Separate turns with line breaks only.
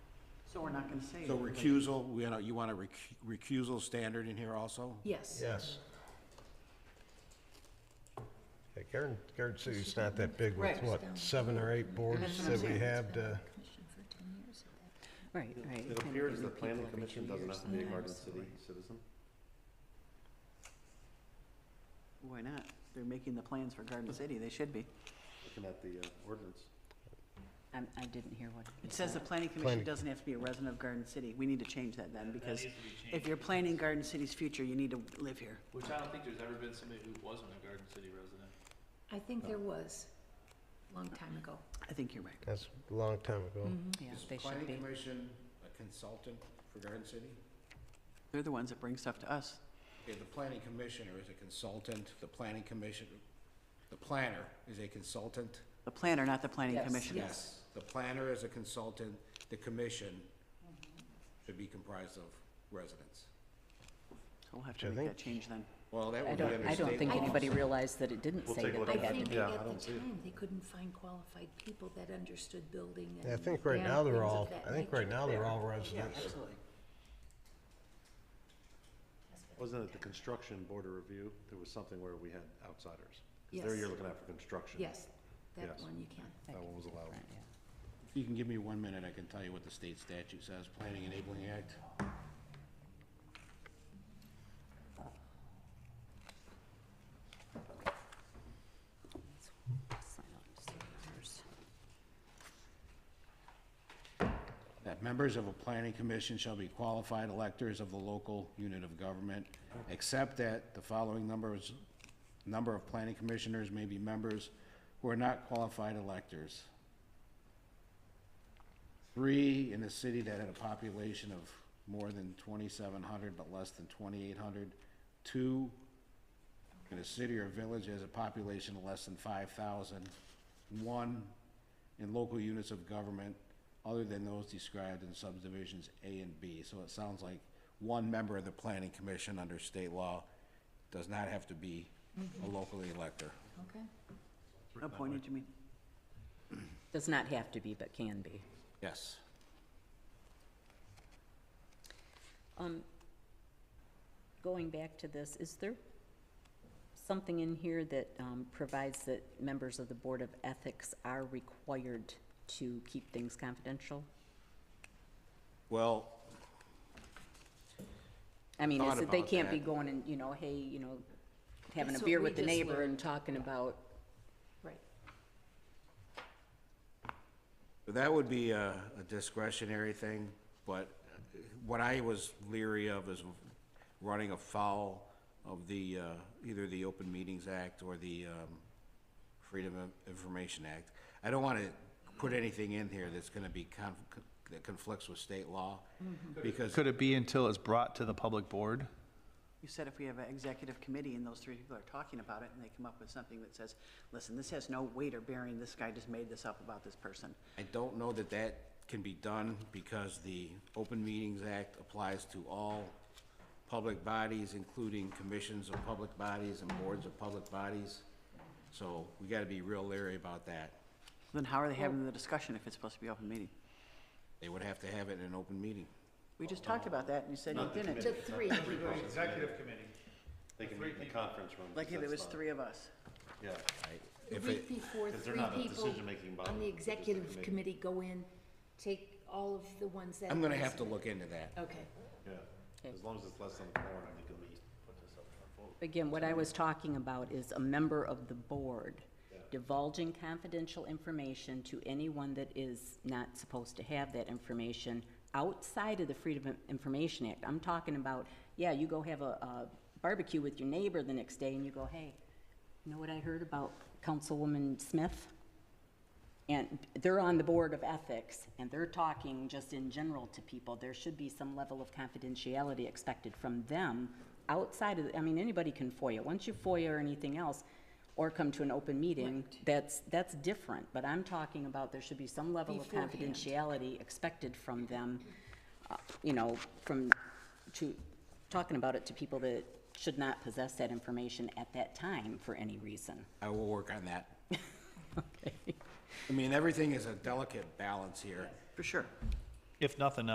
So we're not gonna say.
So
it.
recusal, we, know, you want a recu- recusal standard in here also?
Yes.
Yes. Yeah, Garden, Garden City's not that big with,
Right.
what, seven or eight boards
That's what I'm
that we uh,
saying.
have to,
Right, right.
It appears the planning commission doesn't have to be a Garden City citizen.
Why not? They're making the plans for Garden City, they should be.
Looking at the uh, ordinance.
I'm, I didn't hear what. you
It says the
said.
planning commission
Planning.
doesn't have to be a resident of Garden City. We need to change that then, because
needs to be
if
changed.
you're planning Garden City's future, you need to live here.
Which I don't think there's ever been somebody who wasn't a Garden City resident.
I think there was, a long time ago.
I think you're right.
that's a long time ago.
Mm-hmm.
Yeah, they should be.
commission a consultant for Garden City?
They're the ones that bring stuff to us.
Okay, the planning commissioner is a consultant, the planning commission, the planner is a consultant?
The planner, not the planning
Yes,
commissioner.
yes.
The planner is a consultant, the commission should be comprised of residents.
So we'll have to
Which I
make
think-
that change then.
Well, that
I
would be
don't,
under
I don't
state
think
I
law.
don't
anybody realized that it didn't
We'll
say
take
that
a
they
look at
I
it.
had
think
to
at
be.
Yeah, I don't
the
see it.
time, they couldn't find qualified people that understood building and.
Yeah, I think right
and
now
things
they're
of
all,
that
I think
nature.
right now they're all residents.
Absolutely.
Wasn't it the construction board of review? There was something where we had outsiders. Because
Yes.
there you're looking at for construction.
Yes, that
Yes.
one you can.
That
That
could
one was
be
allowed.
different, yeah.
You can give me one minute, I can tell you what the state statute says, Planning Enabling Act.
Sign on, just the numbers.
That members of a planning commission shall be qualified electors of the local unit of government, except that the following numbers, number of planning commissioners may be members who are not qualified electors. Three in a city that had a population of more than twenty-seven hundred but less than twenty-eight hundred. Two in a city or village that has a population of less than five thousand. One in local units of government other than those described in subdivisions A and B. So it sounds like one member of the planning commission under state law does not have to be a locally elector.
Okay.
Appointed to me.
Does not have to be, but can be.
Yes.
Um, Going back to this, is there something in here that um, provides that members of the Board of Ethics are required to keep things confidential?
Well,
I mean,
Thought
is it, they
about
can't be
that.
going and, you know, hey, you know, having a
That's what
beer
we
with the
just
neighbor
learned.
and talking about,
Right.
that would be a a discretionary thing, but what I was leery of is running afoul of the, uh, either the Open Meetings Act or the um, Freedom of Information Act. I don't want to put anything in here that's going to be, conf- that conflicts with state law, because
Could it be until it's brought to the public board?
You said if we have an executive committee and those three people are talking about it and they come up with something that says, listen, this has no weight or bearing, this guy just made this up about this person.
I don't know that that can be done because the Open Meetings Act applies to all public bodies, including commissions of public bodies and boards of public bodies. So we gotta be real leery about that.
Then how are they having the discussion if it's supposed to be open meeting?
They would have to have it in an open meeting.
We just talked about that and you said you didn't.
The three,
Executive committee.
They can meet in the conference room.
Like if it
that's
was
not-
three of us.
Yeah.
the
If
week
it,
before,
Because they're
three
not a
people
decision-making body,
on the
they're just a
executive
committee.
committee go in, take all of the ones that.
I'm gonna have to look into that.
Okay.
Yeah. As long as it's less than four, I think you'll meet. Put this up for vote.
again, what I was talking about is a member of the board divulging confidential information to anyone that is not supposed to have that information outside of the Freedom of Information Act. I'm talking about, yeah, you go have a a barbecue with your neighbor the next day and you go, hey, you know what I heard about Councilwoman Smith? And they're on the Board of Ethics, and they're talking just in general to people. There should be some level of confidentiality expected from them outside of, I mean, anybody can FOIA. Once you FOIA or anything else, or come to an open meeting, that's, that's different. But I'm talking about there should be some level of
Beforehand.
confidentiality expected from them, uh, you know, from, to, talking about it to people that should not possess that information at that time for any reason.
I will work on that.
Okay.
I mean, everything is a delicate balance here.
For sure.
If nothing